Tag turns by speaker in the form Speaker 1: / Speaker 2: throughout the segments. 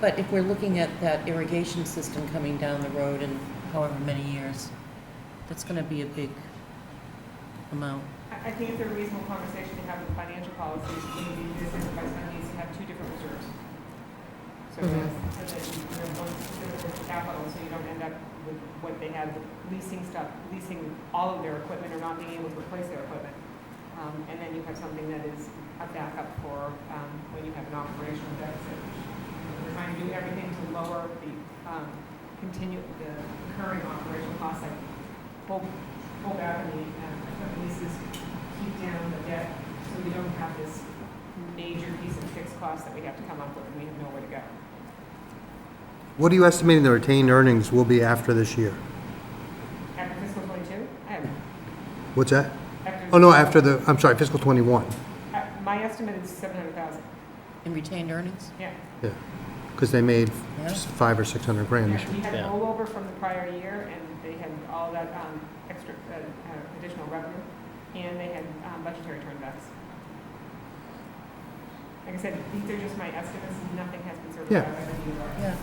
Speaker 1: But if we're looking at that irrigation system coming down the road in however many years, that's gonna be a big amount.
Speaker 2: I I think it's a reasonable conversation to have with financial policies, maybe this is by some needs to have two different reserves. So
Speaker 1: Mhm.
Speaker 2: that's, so that you you know, one specific is capital, so you don't end up with what they have, leasing stuff, leasing all of their equipment or not being able to replace their equipment. Um, and then you have something that is a backup for, um, when you have an operational deficit. We're trying to do everything to lower the, um, continue, the current operational costs, like pull, pull back on the, uh, equipment leases, keep down the debt, so we don't have this major piece of fixed cost that we have to come up with, and we have nowhere to go.
Speaker 3: What are you estimating the retained earnings will be after this year?
Speaker 2: After fiscal twenty-two, I have,
Speaker 3: What's that?
Speaker 2: after.
Speaker 3: Oh, no, after the, I'm sorry, fiscal '21.
Speaker 2: Uh, My estimate is seven hundred thousand,
Speaker 1: In retained earnings?
Speaker 2: yeah.
Speaker 3: Yeah, because they made
Speaker 1: Yeah.
Speaker 3: s- five or 600 grand. this
Speaker 2: Yeah,
Speaker 3: year.
Speaker 2: We had
Speaker 4: Yeah.
Speaker 2: rollover from the prior year, and they had all that, um, extra, uh, uh, additional revenue, and they had, um, budgetary turnbacks. Like I said, these are just my estimates, and nothing has been certified
Speaker 3: Yeah.
Speaker 2: by the DOR.
Speaker 1: Yeah.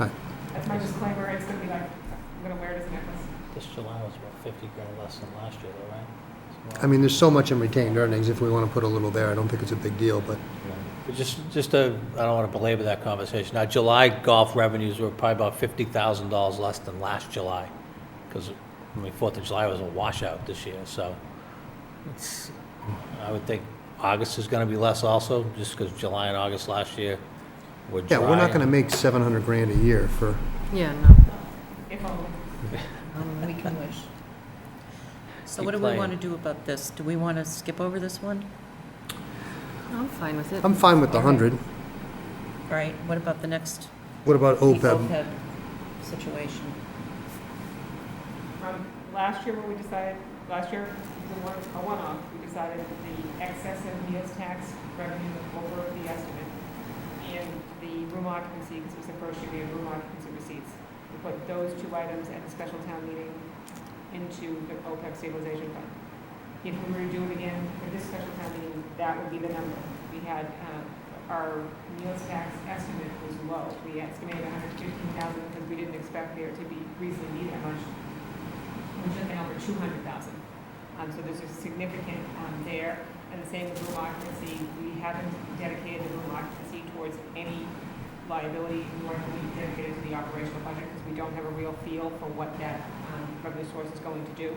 Speaker 3: Right.
Speaker 2: That's my disclaimer, it's gonna be like, I'm gonna wear it as a necklace.
Speaker 4: This July was about 50 grand less than last year, though, right? So,
Speaker 3: I mean, there's so much in retained earnings, if we want to put a little there, I don't think it's a big deal, but
Speaker 4: you know, but Just, just, uh, I don't want to belabor that conversation. Now, July golf revenues were probably about $50,000 less than last July, because, I mean, Fourth of July was a washout this year, so it's, I would think August is going to be less also, just because July and August last year were dry.
Speaker 3: yeah, we're not going to
Speaker 4: and-
Speaker 3: make 700 grand a year for,
Speaker 1: Yeah, no,
Speaker 2: If only.
Speaker 1: Um, we can wish. So
Speaker 4: Keep
Speaker 1: what do we
Speaker 4: playing.
Speaker 1: wanna do about this? Do we wanna skip over this one?
Speaker 5: I'm fine with it.
Speaker 3: I'm fine with the 100.
Speaker 1: All right, what about the next?
Speaker 3: What about E
Speaker 1: the
Speaker 5: E
Speaker 3: OPEB?
Speaker 1: Situation.
Speaker 2: From last year, what we decided, last year, it was a one- a one-off, we decided that the excess of meals tax revenue was over the estimate, and the room occupancy, because it was the first year we had room occupancy receipts. We put those two items at the special town meeting into the OPEB stabilization fund. If we were to do it again for this special town meeting, that would be the number. We had, uh, our meals tax estimate was low. We estimated hundred fifteen thousand because we didn't expect there to be, reasonably be that much. We took out for two hundred thousand. Um, so there's a significant, um, there. And the same with room occupancy. We haven't dedicated the room occupancy towards any liability, nor have we dedicated to the operational budget because we don't have a real feel for what that, um, revenue source is going to do.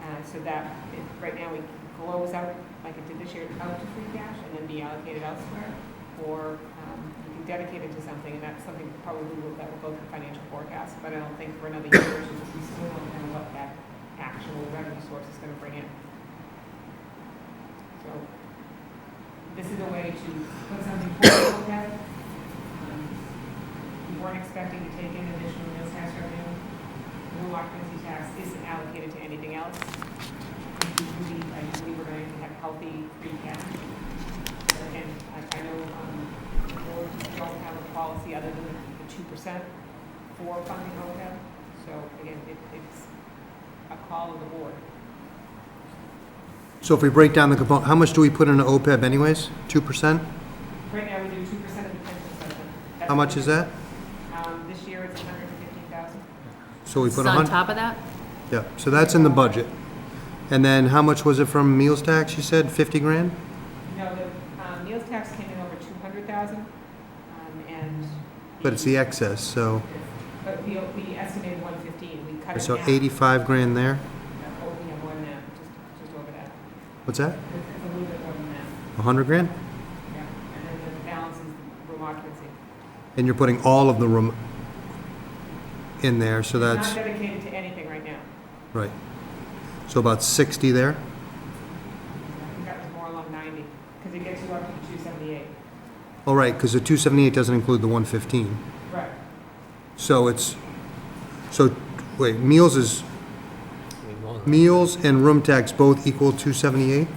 Speaker 2: Uh, so that, if, right now, we close out, like it did this year, out to free cash and then be allocated elsewhere, or um, you can dedicate it to something, and that's something probably will- that will go through financial forecast, but I don't think for another year, or so, because we still don't know what that actual revenue source is gonna bring in. So, this is a way to put something forward, look at. Um, We weren't expecting to take in additional meals tax revenue, no occupancy tax isn't allocated to anything else. We believe, I do believe we're going to have healthy free cash. And I, I know, um, boards don't have a policy other than the two percent for funding OPEB. So again, it, it's a call of the board.
Speaker 3: So if we break down the component, how much do we put into OPEB anyways? 2%?
Speaker 2: Right now, we do two percent of the pension supplement. That's-
Speaker 3: How much is that?
Speaker 2: Um, this year, it's hundred and fifteen thousand.
Speaker 3: So we put
Speaker 5: It's
Speaker 3: 100.
Speaker 5: on top of that?
Speaker 3: Yeah, so that's in the budget. And then how much was it from meals tax, you said, 50 grand?
Speaker 2: No, the, um, meals tax came in over two hundred thousand, um, and.
Speaker 3: But it's the excess, so,
Speaker 2: But we, we estimated one fifteen, we cut it down.
Speaker 3: so 85 grand there?
Speaker 2: Oh, yeah, more than that, just, just over that.
Speaker 3: What's that?
Speaker 2: It's it's a little bit more than that,
Speaker 3: 100 grand?
Speaker 2: yeah. And then the balance is room occupancy.
Speaker 3: And you're putting all of the room in there, so that's,
Speaker 2: Not dedicated to anything right now.
Speaker 3: right. So about 60 there?
Speaker 2: I think that was more along ninety, because it gets you up to two seventy-eight.
Speaker 3: All right, because the 278 doesn't include the 115.
Speaker 2: Right.
Speaker 3: So it's, so, wait, meals is,
Speaker 4: We won't-
Speaker 3: meals and room tax both equal 278?